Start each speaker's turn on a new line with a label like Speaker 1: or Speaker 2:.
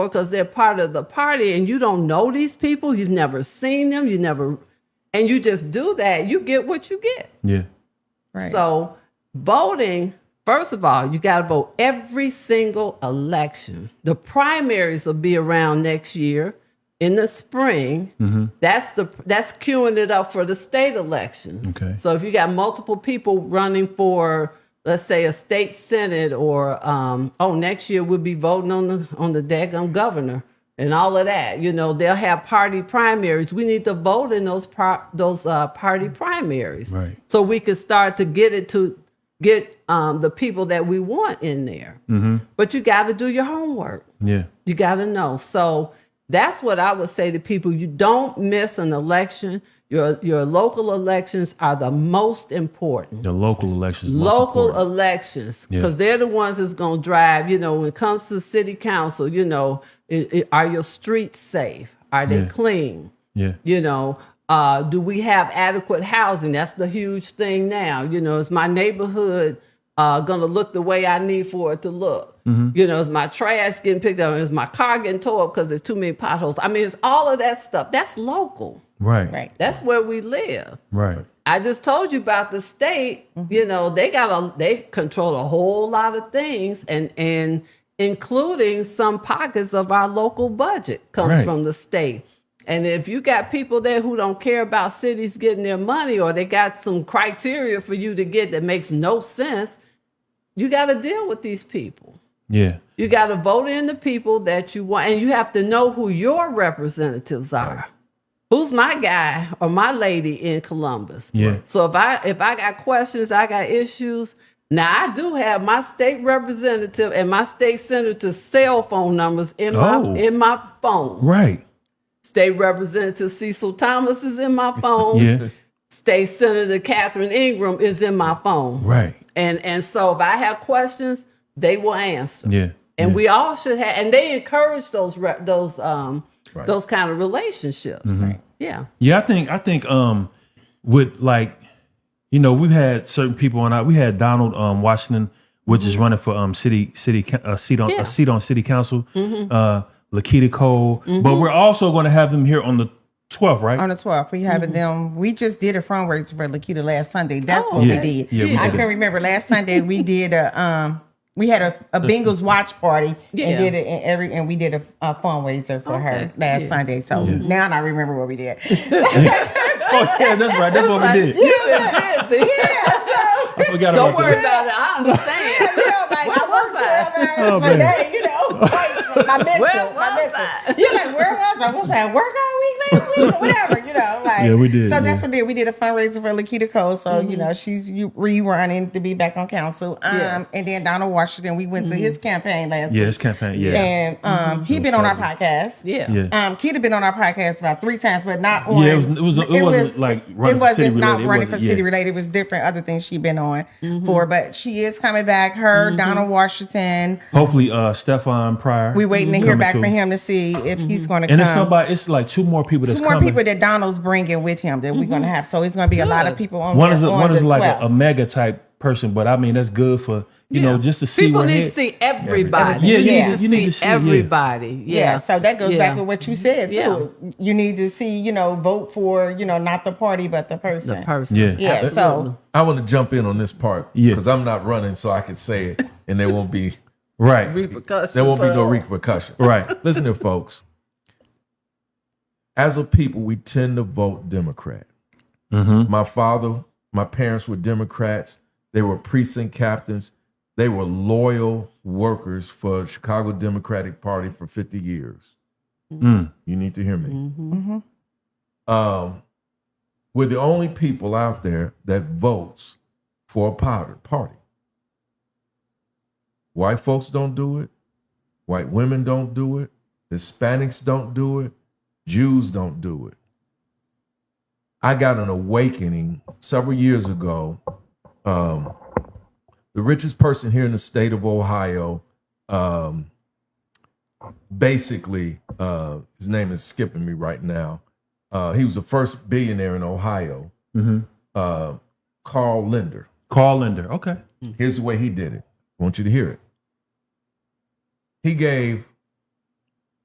Speaker 1: because they're part of the party and you don't know these people, you've never seen them, you never, and you just do that, you get what you get.
Speaker 2: Yeah.
Speaker 3: Right.
Speaker 1: So voting, first of all, you got to vote every single election. The primaries will be around next year in the spring. That's the that's queuing it up for the state elections.
Speaker 2: Okay.
Speaker 1: So if you got multiple people running for let's say a state senate or um, oh next year we'll be voting on the on the daggum governor and all of that you know they'll have party primaries we need to vote in those par- those uh, party primaries
Speaker 2: Right.
Speaker 1: so we can start to get it to get um, the people that we want in there.
Speaker 2: Mm-hmm.
Speaker 1: But you got to do your homework.
Speaker 2: Yeah.
Speaker 1: You got to know. So that's what I would say to people: you don't miss an election. Your your local elections are the most important.
Speaker 2: The local elections. most
Speaker 1: Local
Speaker 2: important.
Speaker 1: elections,
Speaker 2: Yeah.
Speaker 1: because they're the ones that's going to drive. You know, when it comes to city council, you know, it, it- are your streets safe? Are they
Speaker 2: Yeah.
Speaker 1: clean?
Speaker 2: yeah.
Speaker 1: You know, uh, do we have adequate housing? That's the huge thing now. You know, is my neighborhood uh, going to look the way I need for it to look? You know, is my trash getting picked up? Is my car getting tore up because there's too many potholes? I mean, it's all of that stuff. That's local.
Speaker 2: Right.
Speaker 3: Right.
Speaker 1: That's where we live.
Speaker 2: Right.
Speaker 1: I just told you about the state. You know, they got a they control a whole lot of things, and and including some pockets of our local budget comes
Speaker 2: Right.
Speaker 1: from the state. And if you got people there who don't care about cities getting their money, or they got some criteria for you to get that makes no sense, you got to deal with these people.
Speaker 2: Yeah.
Speaker 1: You got to vote in the people that you want, and you have to know who your representatives are. Who's my guy or my lady in Columbus?
Speaker 2: Yeah.
Speaker 1: So if I if I got questions, I got issues. Now I do have my state representative and my state senator's cell phone numbers in
Speaker 2: Oh.
Speaker 1: my in my phone.
Speaker 2: Right.
Speaker 1: State Representative Cecil Thomas is in my phone.
Speaker 2: Yeah.
Speaker 1: State Senator Catherine Ingram is in my phone.
Speaker 2: Right.
Speaker 1: And and so if I have questions, they will answer
Speaker 2: Yeah.
Speaker 1: and
Speaker 2: yeah.
Speaker 1: we all should have and they encourage those re- those um
Speaker 3: Right.
Speaker 1: those kind of relationships
Speaker 2: Mm-hmm.
Speaker 1: yeah
Speaker 2: Yeah, I think I think um with like you know we've had certain people on our we had Donald um Washington which is running for um city city ca- a seat on
Speaker 1: Yeah. Mm-hmm.
Speaker 2: a seat on city council uh Lakita Cole but we're also going to have them here on the 12th right
Speaker 3: On the 12th, we
Speaker 1: Mm-hmm.
Speaker 3: having them. We just did a front race for Lakita last Sunday. That's
Speaker 1: Oh,
Speaker 3: what
Speaker 2: Yeah.
Speaker 3: we did.
Speaker 2: Yeah, we
Speaker 3: I
Speaker 2: did
Speaker 3: can
Speaker 2: that.
Speaker 3: remember last Sunday we did a um we had a, a Bengals watch party
Speaker 1: Yeah.
Speaker 3: and did it in every and we did a, a fundraiser for
Speaker 1: Okay.
Speaker 3: her last
Speaker 1: Yeah.
Speaker 3: Sunday. So now I remember what we did.
Speaker 2: oh yeah that's right that's what we did
Speaker 1: yeah, busy.
Speaker 2: I forgot
Speaker 1: don't
Speaker 2: about
Speaker 1: worry
Speaker 2: that
Speaker 1: about it i understand
Speaker 3: you know, like, I worked
Speaker 2: I?
Speaker 3: 12
Speaker 2: Oh,
Speaker 3: hours
Speaker 2: man.
Speaker 3: a day, you know. Like, my mental,
Speaker 1: Where was
Speaker 3: my mental.
Speaker 1: I?
Speaker 3: You're like, where was I? Was I at work all week last week or whatever, you know? Like,
Speaker 2: Yeah, we did,
Speaker 3: So
Speaker 2: yeah.
Speaker 3: that's what we did. We did a fundraiser for Lakita Cole. So,
Speaker 1: Mm-hmm.
Speaker 3: you know, she's you- rerunning to be back on council. Um,
Speaker 1: Yes. Mm-hmm.
Speaker 3: And then Donald Washington, we went to his campaign last
Speaker 2: yeah
Speaker 3: week.
Speaker 2: it's campaign yeah
Speaker 3: And um, he been on our podcast.
Speaker 1: yeah
Speaker 2: yeah
Speaker 3: Um, Keita been on our podcast about three times, but not on.
Speaker 2: Yeah, it was- it was- it wasn't, like, running
Speaker 3: it
Speaker 2: for
Speaker 3: wasn't
Speaker 2: city
Speaker 3: not
Speaker 2: related. It
Speaker 3: running for
Speaker 2: wasn't,
Speaker 3: city
Speaker 2: yeah. Mm-hmm.
Speaker 3: related. It was different other things she been on for, but she is coming back. Her Donald Washington.
Speaker 2: hopefully uh Stefan Pryor
Speaker 3: We waiting to
Speaker 2: Mm-hmm.
Speaker 3: hear
Speaker 2: coming
Speaker 3: back
Speaker 2: too. Mm-hmm.
Speaker 3: from him to see if he's going to come.
Speaker 2: and it's somebody it's like two more people that's
Speaker 3: Two more
Speaker 2: coming Mm-hmm.
Speaker 3: people that Donald's bringing with him that we're going to have. So it's going to be a lot of
Speaker 1: Good.
Speaker 3: people on.
Speaker 2: one
Speaker 3: there
Speaker 2: is a,
Speaker 3: on
Speaker 2: one
Speaker 3: the
Speaker 2: is like a,
Speaker 3: 12th.
Speaker 2: a mega type person but I mean that's good for you know
Speaker 1: Yeah.
Speaker 2: just to see
Speaker 1: people
Speaker 2: where
Speaker 1: need
Speaker 2: head-
Speaker 1: to see everybody
Speaker 2: Yeah,
Speaker 1: you
Speaker 3: you
Speaker 1: need
Speaker 3: need-
Speaker 1: to
Speaker 2: you
Speaker 1: see
Speaker 2: need to see, yeah.
Speaker 1: everybody yeah.
Speaker 3: Yeah. so that goes
Speaker 1: Yeah.
Speaker 3: back to what you said too.
Speaker 1: Yeah.
Speaker 3: You need to see, you know, vote for, you know, not the party but the person.
Speaker 1: the person
Speaker 2: Yeah.
Speaker 3: Yeah. So
Speaker 4: I want to jump in on this part
Speaker 2: Yeah.
Speaker 4: because I'm not running, so I can say it, and there won't be
Speaker 2: right
Speaker 1: repercussions
Speaker 4: there won't be no
Speaker 1: of-
Speaker 4: repercussions.
Speaker 2: right
Speaker 4: Listen here, folks. As a people, we tend to vote Democrat.
Speaker 2: mhm
Speaker 4: My father, my parents were Democrats. They were precinct captains. They were loyal workers for Chicago Democratic Party for 50 years.
Speaker 2: mm.
Speaker 4: You need to hear me.
Speaker 1: Mhm.
Speaker 3: mhm.
Speaker 4: Um, we're the only people out there that votes for a power- party. White folks don't do it. White women don't do it. Hispanics don't do it. Jews don't do it. I got an awakening several years ago. Um, the richest person here in the state of Ohio, um, basically, uh, his name is skipping me right now. Uh, he was the first billionaire in Ohio,
Speaker 2: Mm-hmm.
Speaker 4: uh, Carl Linder.
Speaker 2: Carl Linder. Okay.
Speaker 4: Here's the way he did it. I want you to hear it. He gave